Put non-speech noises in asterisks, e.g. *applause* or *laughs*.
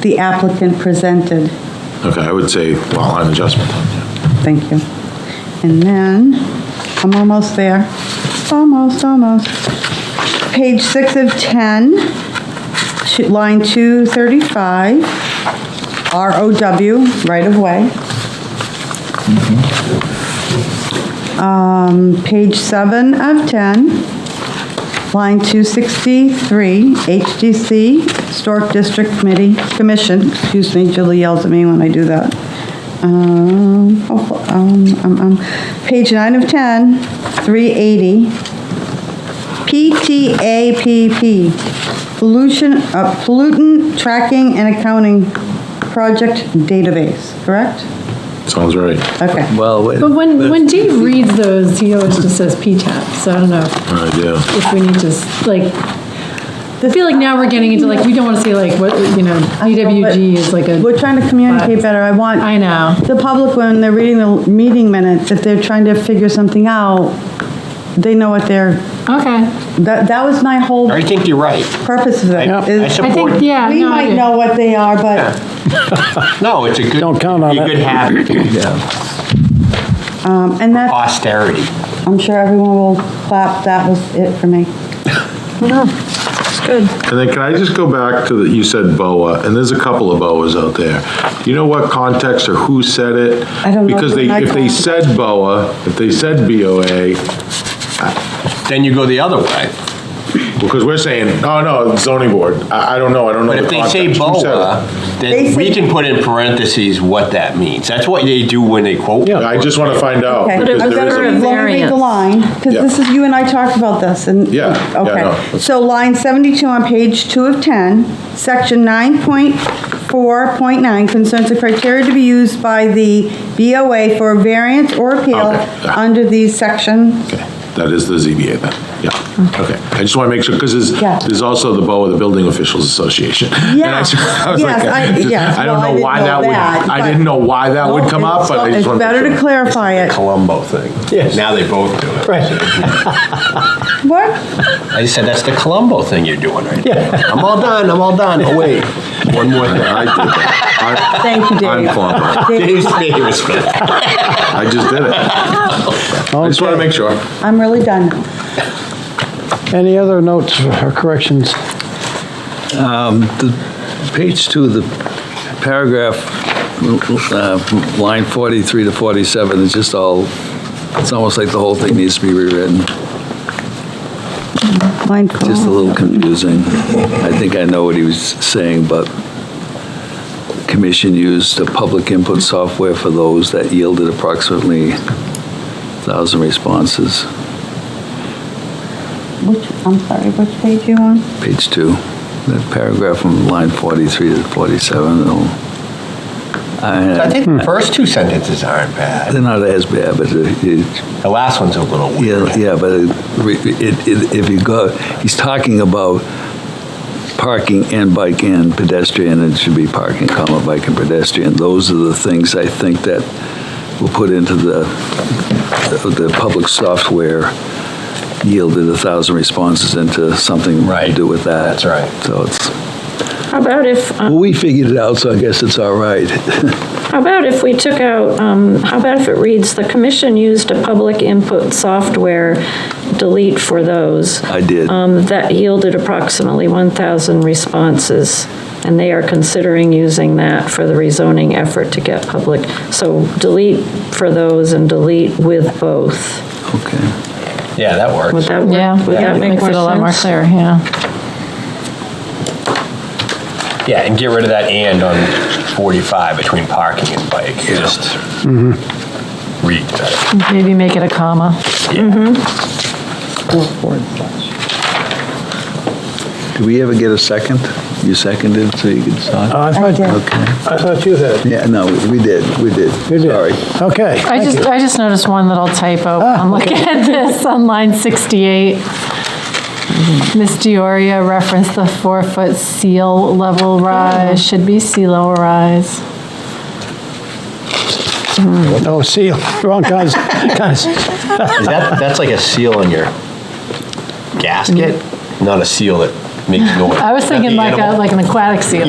the applicant presented. Okay, I would say lot line adjustment. Thank you. And then, I'm almost there. Almost, almost. Page six of 10, sh- line 235, ROW, right of way. Um, Page seven of 10, line 263, HDC, Historic District Committee, Commission, excuse me, Julie yells at me when I do that. Um, oh, um, um, um, Page nine of 10, 380, PTAPP, pollution, uh, pollutant tracking and accounting project database, correct? Sounds right. Okay. Well, wait, But when, when Dave reads those, he always just says PTAP, so I don't know All right, yeah. if we need to, s- like, I feel like now we're getting into like, we don't want to say like, what, you know, DWG is like a, We're trying to communicate But- better. I want. I know. the public, when they're reading the meeting minutes, if they're trying to figure something out, they know what they're, Okay. that, that was my whole I think you're right. purpose of it. I is I support- think, yeah. We no, I might do. know what they are, but No, it's a good. Don't count on a it. good habit, Um, And that, austerity. I'm sure everyone will clap, that was it for me. And then can I just go back to, the you said BOA, and there's a couple of BOAs out there. You know what context or who said it? I don't know Because they, who I if they called. said BOA, if they said BOA, Then you go the other way. because we're saying, oh, no, it's zoning board. I, I don't know, I don't know But if the they say context. Who said it? BOA, They then say- we can put in parentheses what that means. That's what they do when they quote. I just want to find out, Okay. because I'm there is a- gonna a read- let me read variance. the line, because Yeah. this is, you and I talked about this, and. Yeah, yeah, Okay, no. so line 72 on page 2 of 10, section 9.4.9 concerns the criteria to be used by the BOA for variance or appeal Okay, yeah. under these section. Okay, that is the ZBA then, yeah, okay. I just want to make sure, because Mm-hmm. Yeah. there's, there's also the BOA, the Building Officials Association. *laughs* And I just- I was like, Yes, *laughs* I- just- yes, I well, don't I know didn't why know that would, that, I but- didn't know why that would come up, but I just It's want to. better to clarify it. Columbo thing. Now they both do it. What? I just said, that's the Columbo thing you're doing right *laughs* now. I'm all done, I'm all done. Oh, wait. One more thing. I did that. Thank you, I- I'm Dave. clump. Dave, Dave's famous for that. I just *laughs* did it. I just want to make sure. I'm really done. now. Any other notes or corrections? page two, of the paragraph, uh, line 43 to 47 is just all, it's almost like the whole thing needs to be rewritten, Line just 12. a little confusing. I think I know what he was saying, but commission used a public input software for those that yielded approximately 1,000 responses, Which, I'm sorry, which page you on? page two. That paragraph from line 43 to 47, it'll- I I- think Hmm. the first two sentences aren't bad. they're not as bad, but uh, it- it The last one's a little weird. Yeah, yeah, but it- it- it- if you go, he's talking about parking and bike and pedestrian, it should be parking, comma, bike and pedestrian. Those are the things I think that will put into the, the public software yielded a thousand responses into something to Right. do with that. That's right. So it's, How about if, uh, well, we figured it out, so I guess it's all right. how about if we took out, um, how about if it reads, "The commission used a public input software," delete for those, I did. um, that yielded approximately 1,000 responses, and they are considering using that for the rezoning effort to get public. So delete for those and delete with both. Okay. Yeah, that works. Would that work? Yeah, Would yeah, that make makes it a lot more sense? clear, yeah. Yeah, and get rid of that and on 45 between parking and bike, just Mm-hmm. read that. Maybe make it a comma. Did we ever get a second? You seconded so you could start? I thought, did. Okay. I thought you had. Yeah, no, we did, we did. You did. Sorry. Okay. I just, I just noticed one little typo. Ah, I'm looking at this *laughs* on line 68. Miss Dioria referenced the four-foot seal level rise, should be sea level rise. Oh, see, wrong kinds, kinds. Is that, that's like a seal on your gasket, not a seal that makes noise. I was Is that thinking the like a, animal? like an aquatic seal.